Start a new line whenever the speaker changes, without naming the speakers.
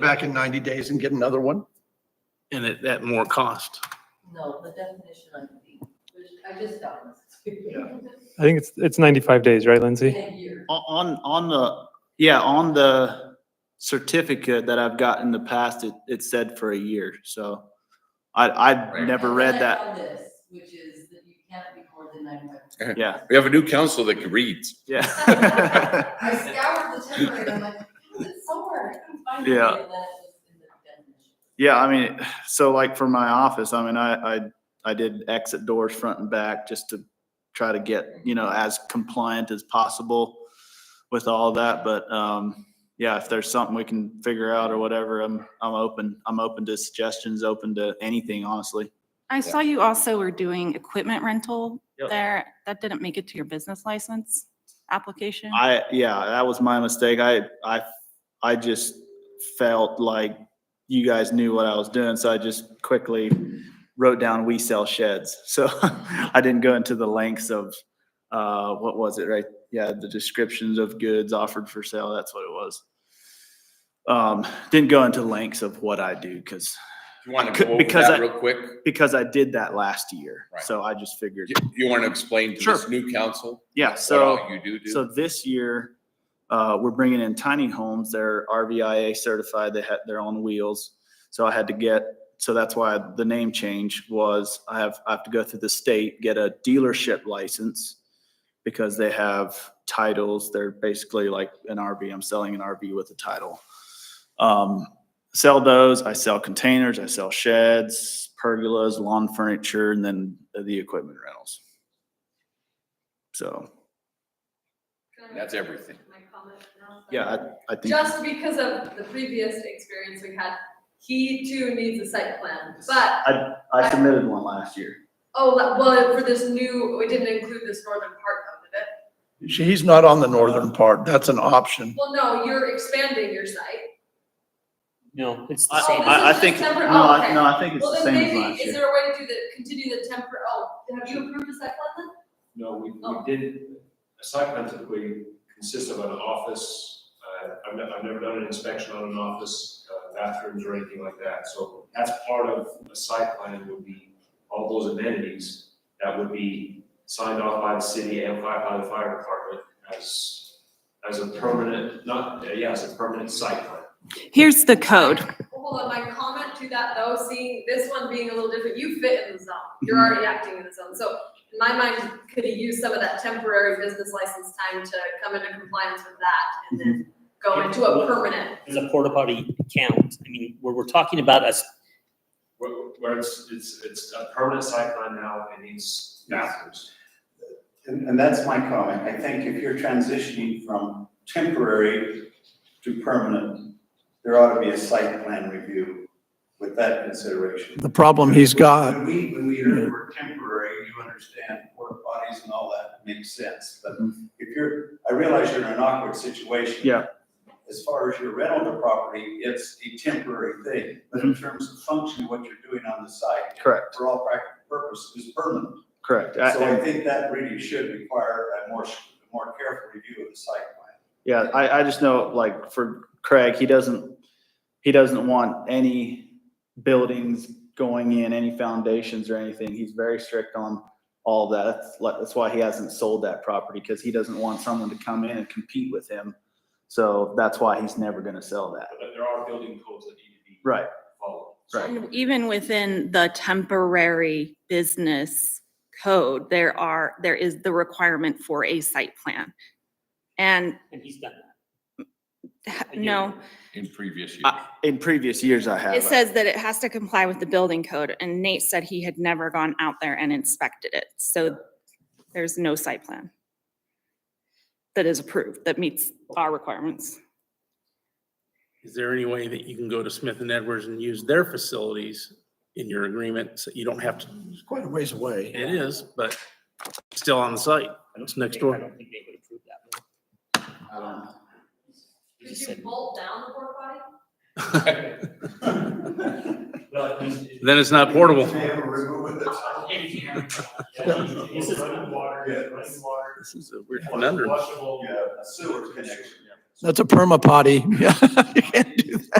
back in 90 days and get another one?
and at, at more cost.
No, the definition on the, which I just found this.
I think it's, it's 95 days, right, Lindsay?
A year.
On, on the, yeah, on the certificate that I've got in the past, it, it said for a year, so I, I never read
And
that.
I found This, which is that you can't be more than ninety-five.
Yeah,
We have a new council that can read.
yeah.
I scoured the template, and I'm like, it's somewhere, I couldn't find it.
Yeah.
And then it was in the definition.
Yeah, I mean, so like for my office, I mean, I, I, I did exit doors front and back just to try to get, you know, as compliant as possible with all that, but, um, yeah, if there's something we can figure out or whatever, I'm, I'm open, I'm open to suggestions, open to anything, honestly.
I saw you also were doing equipment rental
Yep.
there. That didn't make it to your business license application?
I, yeah, that was my mistake. I, I, I just felt like you guys knew what I was doing, so I just quickly wrote down, we sell sheds. So I didn't go into the lengths of, uh, what was it, right? Yeah, the descriptions of goods offered for sale, that's what it was. Um, didn't go into lengths of what I do, because,
You want to
Could-
go over
because I-
that real quick?
because I did that last year.
Right.
So I just figured,
You, you want to explain to this
Sure.
new council?
yeah, so.
What all you do
So
do?
this year, uh, we're bringing in tiny homes. They're RVIA certified. They had their own wheels. So I had to get, so that's why the name change was I have, I have to go through the state, get a dealership license because they have titles. They're basically like an RV. I'm selling an RV with a title. Um, sell those. I sell containers. I sell sheds, pergolas, lawn furniture, and then the equipment rentals. So.
That's everything.
My comment now.
Yeah, I think.
Just because of the previous experience we had, he too needs a site plan, but,
I submitted one last year.
oh, la- well, for this new, we didn't include this northern part of it.
He's not on the northern part. That's an option.
Well, no, you're expanding your site.
No, it's
the same.
I, I think, no,
December-
I,
okay.
no, I think it's
Well,
the
then
same as
maybe,
last
is
year.
there a way to do the, continue the temper, oh, have you approved the site plan then?
No, we, we
Oh.
did, a site plan typically consists of an office, uh, I've never, I've never done an inspection on an office, uh, bathrooms or anything like that, so that's part of a site plan would be all those amenities that would be signed off by the city and by, by the fire department as, as a permanent, not, yeah, as a permanent site plan.
Here's the code.
Well, Hold on, my comment to that though, seeing this one being a little different, you fit in the zone, you're
Mm-hmm.
already acting in the zone, so in my mind, could you use some of that temporary business license time to come into compliance with that and then
Mm-hmm.
go into a permanent?
Does a porta potty count? I mean, where we're talking about us,
Where, where it's, it's, it's a permanent site plan now, it needs bathrooms.
And, and that's my comment. I think if you're transitioning from temporary to permanent, there ought to be a site plan review with that consideration.
The problem he's got,
When we, when we heard the word temporary, you understand porta potties and all that makes sense. But if you're, I realize you're in an awkward situation.
Mm-hmm. Yeah.
As far as your rental of the property, it's a temporary thing, but
Mm-hmm.
in terms of function, what you're doing on the site,
Correct,
for all practical purposes, is permanent.
correct. I-
So I think that really should require a more, a more careful review of the site plan.
Yeah, I, I just know, like, for Craig, he doesn't, he doesn't want any buildings going in, any foundations or anything. He's very strict on all that. That's, like- that's why he hasn't sold that property, because he doesn't want someone to come in and compete with him. So that's why he's never gonna sell that.
But there are building codes that need to be
Right,
followed.
right.
And Even within the temporary business code, there are, there is the requirement for a site plan. And
and he's done that. a year
no,
ago.
In previous years.
I- In previous years, I have.
it says that it has to comply with the building code and Nate said he had never gone out there and inspected it. So there's no site plan that is approved, that meets our requirements.
Is there any way that you can go to Smith and Edwards and use their facilities in your agreement? So you don't have to,
it's quite a ways away.
it is, but still on the site. It's next
I
door.
don't think they would approve that.
Could
You just
you
said-
bolt down the porta potty?
Well, it's-
Then it's not portable.
May have a river with it.
This is running water,
Yeah.
running water.
This is a weird conundrum.
Flushable.
Yeah, a sewer connection.
That's a perma potty. Yeah, you can't do that.